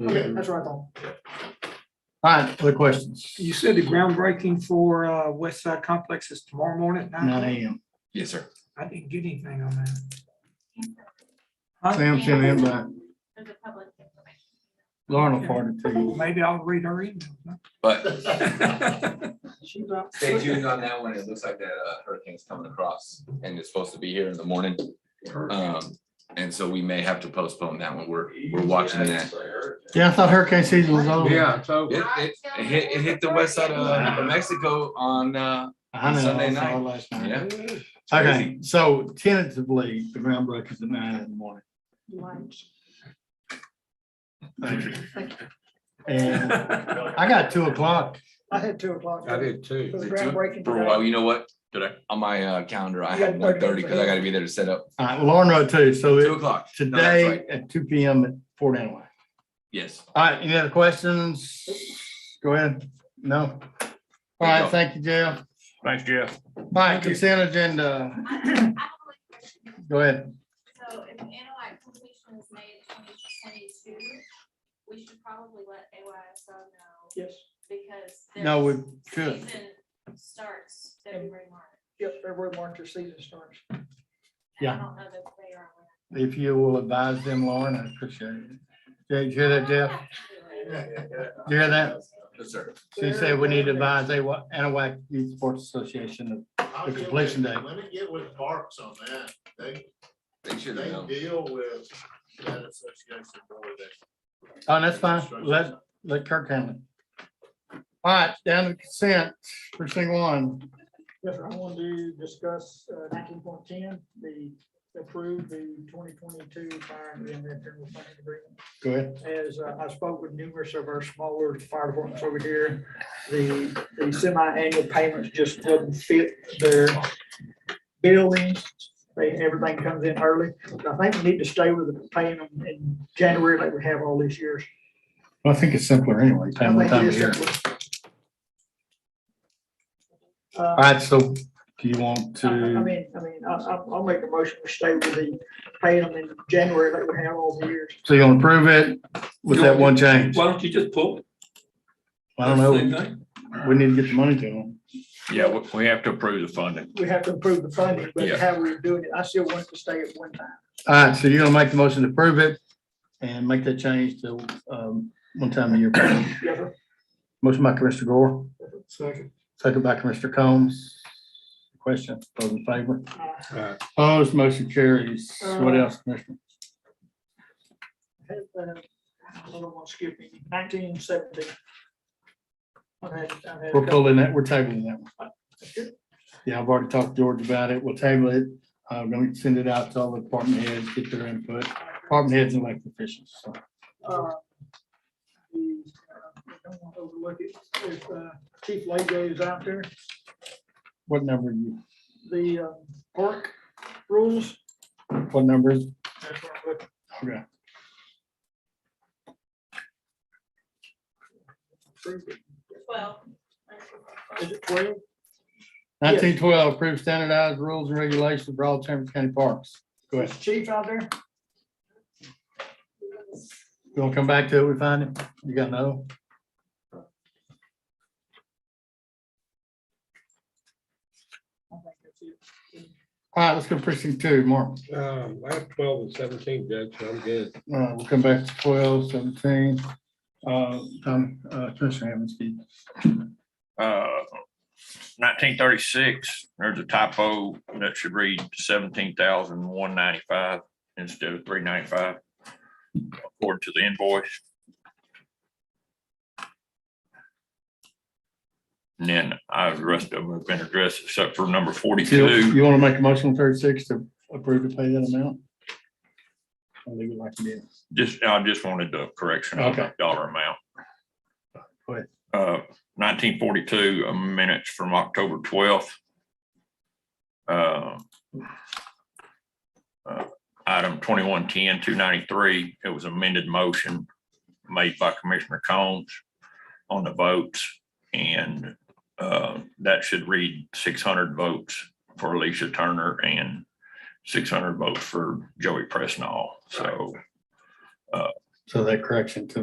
Okay, that's what I thought. All right, other questions? You said the groundbreaking for uh, West Side Complex is tomorrow morning at Nine nine? AM. Yes, sir. I didn't get anything on that. Sam sent an invite. There's a public information. Lauren will forward it to you. Maybe I'll read her email. But She's out. stay tuned on that one. It looks like that uh, hurricane's coming across and it's supposed to be here in the morning. Um, and so we may have to postpone that one. We're, we're watching that. Yeah, I thought hurricane season was over. Yeah, so. It, it, it hit, it hit the west side of uh, Mexico on, uh, I know, Sunday I saw it night. last night. yeah. It's Okay, crazy. so tentatively, the groundbreakers at nine in the morning. Lunch. Thank you. And I got two o'clock. I had two o'clock. I did It was too. groundbreaking For a today. while, you know what? Did I, on my uh, calendar, I had You got one 30 thirty because I gotta be there to set up. All right, Lauren wrote two, so Two it- o'clock. No, that's right. today at two P M at Fort Anway. Yes. All right, any other questions? Go ahead. No? All right, thank you, Jeff. Thanks, Jeff. All right, consent agenda. I have a question. Go ahead. So if Anahuac completion is May of twenty twenty-two, we should probably let AYSO know Yes, because. No, their we should. season Starts February, March. yep, February, March, your season starts. And I Yeah. don't know that they are aware. If you will advise them, Lauren, I appreciate it. Did you hear that, Jeff? Did you hear that? Yes, sir. She said we need to advise they wa- Anahuac Youth Sports Association. I'll The get completion with- date. Let me get with Parks on that. They, They should have they known. deal with that association more than. Oh, that's fine. Let, let Kirk handle it. All right, down to consent, first thing one. Yes, sir, I want to discuss uh, nineteen point ten, the approve the twenty twenty-two fire and reinvent general funding agreement. Go ahead. as uh, I spoke with numerous of our smaller fire departments over here, the, the semi-annual payments just doesn't fit their billings. They, everything comes in early. And I think we need to stay with the paying them in January like we have all these years. I think it's simpler anyway. I time to think it time is here. simpler. All Uh, right, so do you want I I to, mean, I mean, I, I- I'll make a motion to stay with the paying them in January like we have all the years. so you want to approve it with that one change? Why don't you just pull? it? I don't Same know. thing. We need to get the money to them. Yeah, we, we have to approve the funding. We have to improve the funding, but Yeah. how we're doing it, I still want it to stay at one time. All right, so you're gonna make the motion to approve it and make that change to, um, one time a year. Yes, sir. Motion by Commissioner Gore. Second. Second by Commissioner Combs. Question, those in favor? Uh, Aye. Opposed, motion carries. What else, Commissioner? I don't want to skip any, nineteen seventy. We're pulling that, we're tabling that one. Yeah, I've already talked to George about it. We'll table it. I'm gonna send it out to all the department heads, get their input, department heads and elected officials. So, Uh, Don't want to overlook it, if uh, Chief Lego is out there, What number are you, the uh, park rules. what number is, that's what I'm looking okay. for. Well. Is it twelve? Yes. Nineteen twelve, approve standardized rules and regulations for all Chambers County parks. Go ahead. Is Chief out there? You wanna come back to it? We find it? You got no? I think that's it. All right, let's go precinct two, Mark. Um, I have twelve and seventeen, Judge, so I'm good. All right, Uh, we'll come back to twelve, seventeen. Uh, Tom, uh, Commissioner Hammond. Uh, nineteen thirty-six, there's a typo that should read seventeen thousand one ninety-five instead of three ninety-five. According to the invoice. And then I, the rest of them have been addressed except for number forty-two. You wanna make a motion on thirty-six to approve to pay that amount? I'll leave it like it is. Just, I just wanted the correction on Okay. that dollar amount. Go ahead. Uh, nineteen forty-two minutes from October twelfth. Uh, uh, Item 2110 293. it was amended motion made by Commissioner Combs on the votes. And, uh, that should read six hundred votes for Alicia Turner and six hundred votes for Joey Presnell. So So that correction to